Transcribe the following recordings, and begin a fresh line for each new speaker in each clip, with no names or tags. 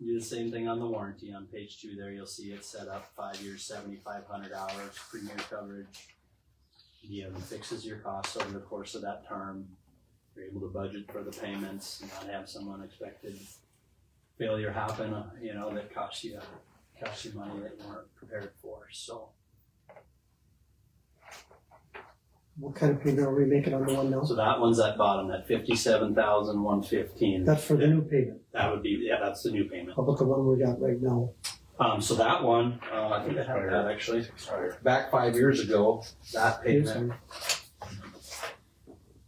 the same thing on the warranty. On page two there, you'll see it set up five years, seventy-five hundred hours, premier coverage. DM fixes your costs over the course of that term. You're able to budget for the payments, and not have some unexpected failure happen, uh, you know, that costs you, costs you money that you weren't prepared for, so.
What kind of payment are we making on the one now?
So that one's at bottom, that fifty-seven thousand, one fifteen.
That's for the new payment.
That would be, yeah, that's the new payment.
How about the one we got right now?
Um, so that one, uh, I think I have that actually.
Sorry.
Back five years ago, that
Yes,
payment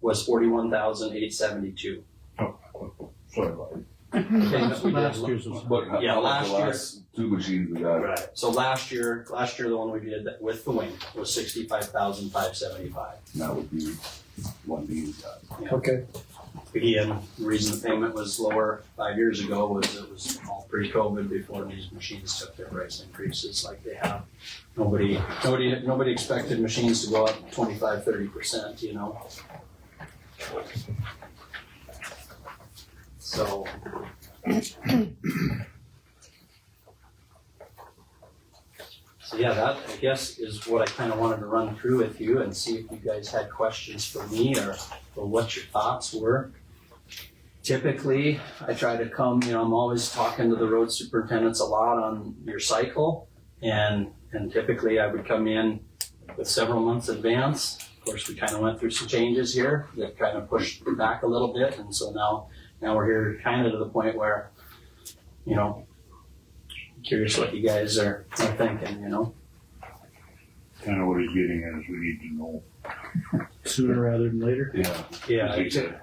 was forty-one thousand eight seventy-two.
Sorry about it.
Last
Last year's was-
But
Yeah,
how about
last
the
year-
last Two machines we got.
Right, so last year, last year, the one we did that- with the wing was sixty-five thousand five seventy-five.
That would be one being got.
Okay,
Again, the reason the payment was lower five years ago was it was all pre-COVID before these machines took their price increases like they have. Nobody, nobody, nobody expected machines to go up twenty-five, thirty percent, you know? So. So yeah, that I guess is what I kind of wanted to run through with you and see if you guys had questions for me or or what your thoughts were. Typically, I try to come, you know, I'm always talking to the road superintendents a lot on your cycle. And, and typically I would come in with several months advance. Of course, we kind of went through some changes here that kind of pushed back a little bit. And so now, now we're here kind of to the point where, you know, curious what you guys are, are thinking, you know?
Kind of what he's getting at is we need to know.
sooner rather than later.
Yeah.
Yeah.
Like I said,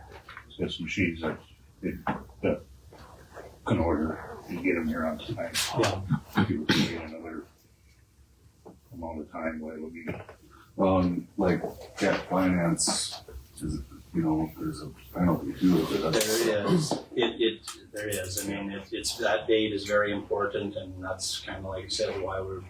Got some machines that, that- that can order and get them here on time.
Yeah.
If you were to get another amount of time, what it would be. Um, like, cat finance, is, you know, there's a penalty too.
There is, it, it, there is, I mean, it, it's, that date is very important, and that's kind of like I said, why we're,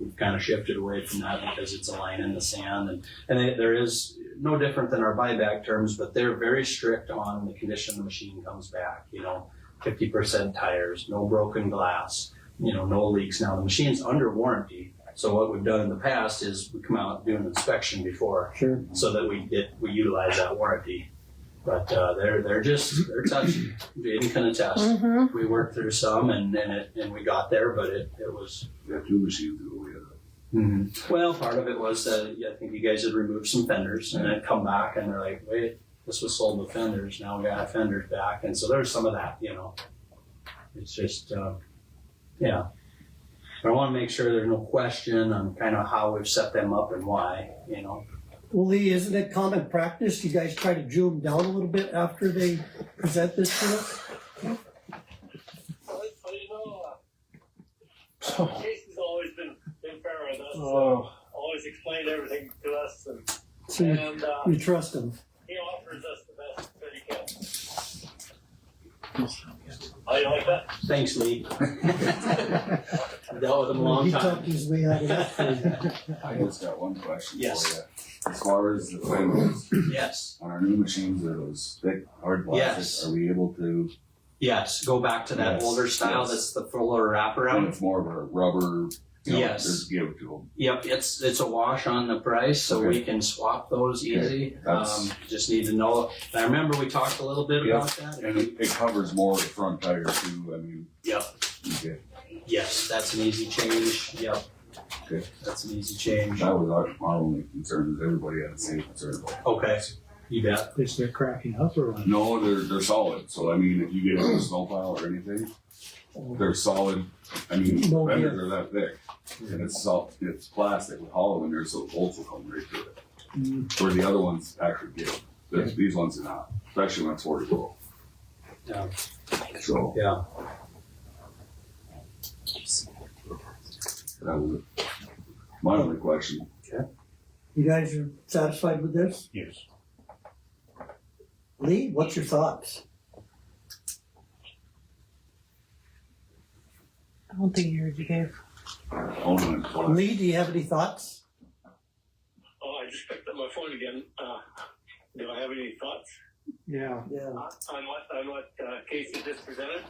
we've kind of shifted away from that, because it's a line in the sand, and, and it- there is, no different than our buyback terms, but they're very strict on the condition the machine comes back, you know, fifty percent tires, no broken glass, you know, no leaks, now the machine's under warranty, so what we've done in the past is we come out, do an inspection before
sure.
so that we get we utilize that warranty. But uh, they're they're just they're touchy. Jaden can attest.
Mm-hmm.
We worked through some and and, it, and we got there, but it, it was
We got two oh, machines that we had.
well. Part of it was that yeah, I think you guys had removed some fenders and then come back and they're like, wait, this was sold with fenders. Now we got our fenders back, and so there's some of that, you know. It's just uh, yeah. But I want to make sure there's no question on kind of how we've set them up and why, you know.
Well, Lee, isn't it common practice? You guys try to jew them down a little bit after they present this to us?
Well, you know,
So,
uh, Casey's always been, been fair with us, so
uh,
always explained everything to us, and,
So you,
and uh,
you trust them?
he offers us the best that he can. Oh, you like that?
Thanks, Lee. Dealt with him a long
He
time.
talked his way out of that thing.
I just got one question for you.
Yes.
As far as the finals,
Yes,
on our new machines, are those thick, hard
Yes.
plastic, are we able to,
yes. Go back to that
Yes,
older style.
yes.
That's the fuller
and
wraparound.
it's more of a rubber, you know,
Yes.
just give it to them?
Yep, it's it's a wash on the price, so we can swap those
Okay,
easy.
that's-
Um, just need to know. I remember we talked a little bit
Yeah.
about that.
And it, it covers more of the front tire too, I mean.
Yep.
Okay,
Yes, that's an easy change. Yep.
Good.
That's an easy change.
that was our, our only concern, is everybody had the same concern.
Okay. You bet.
they start cracking up or what?
No, they're, they're solid, so I mean, if you get a snowplow or anything, they're solid, I mean,
No
fenders are that thick. And it's soft, it's plastic with hollow in there, so the bolts will come right through it.
Mm,
Where the other ones actually give. There's, These ones are not, especially when it's forty below.
Yeah.
So
Yeah.
that was it. my only question.
You guys are satisfied with this?
Yes.
Lee, what's your thoughts?
I don't think you heard you gave.
Only one.
Lee, do you have any thoughts?
Oh, I just picked up my phone again. Uh, do I have any thoughts
Yeah.
Yeah.
on what, on what uh, Casey just presented?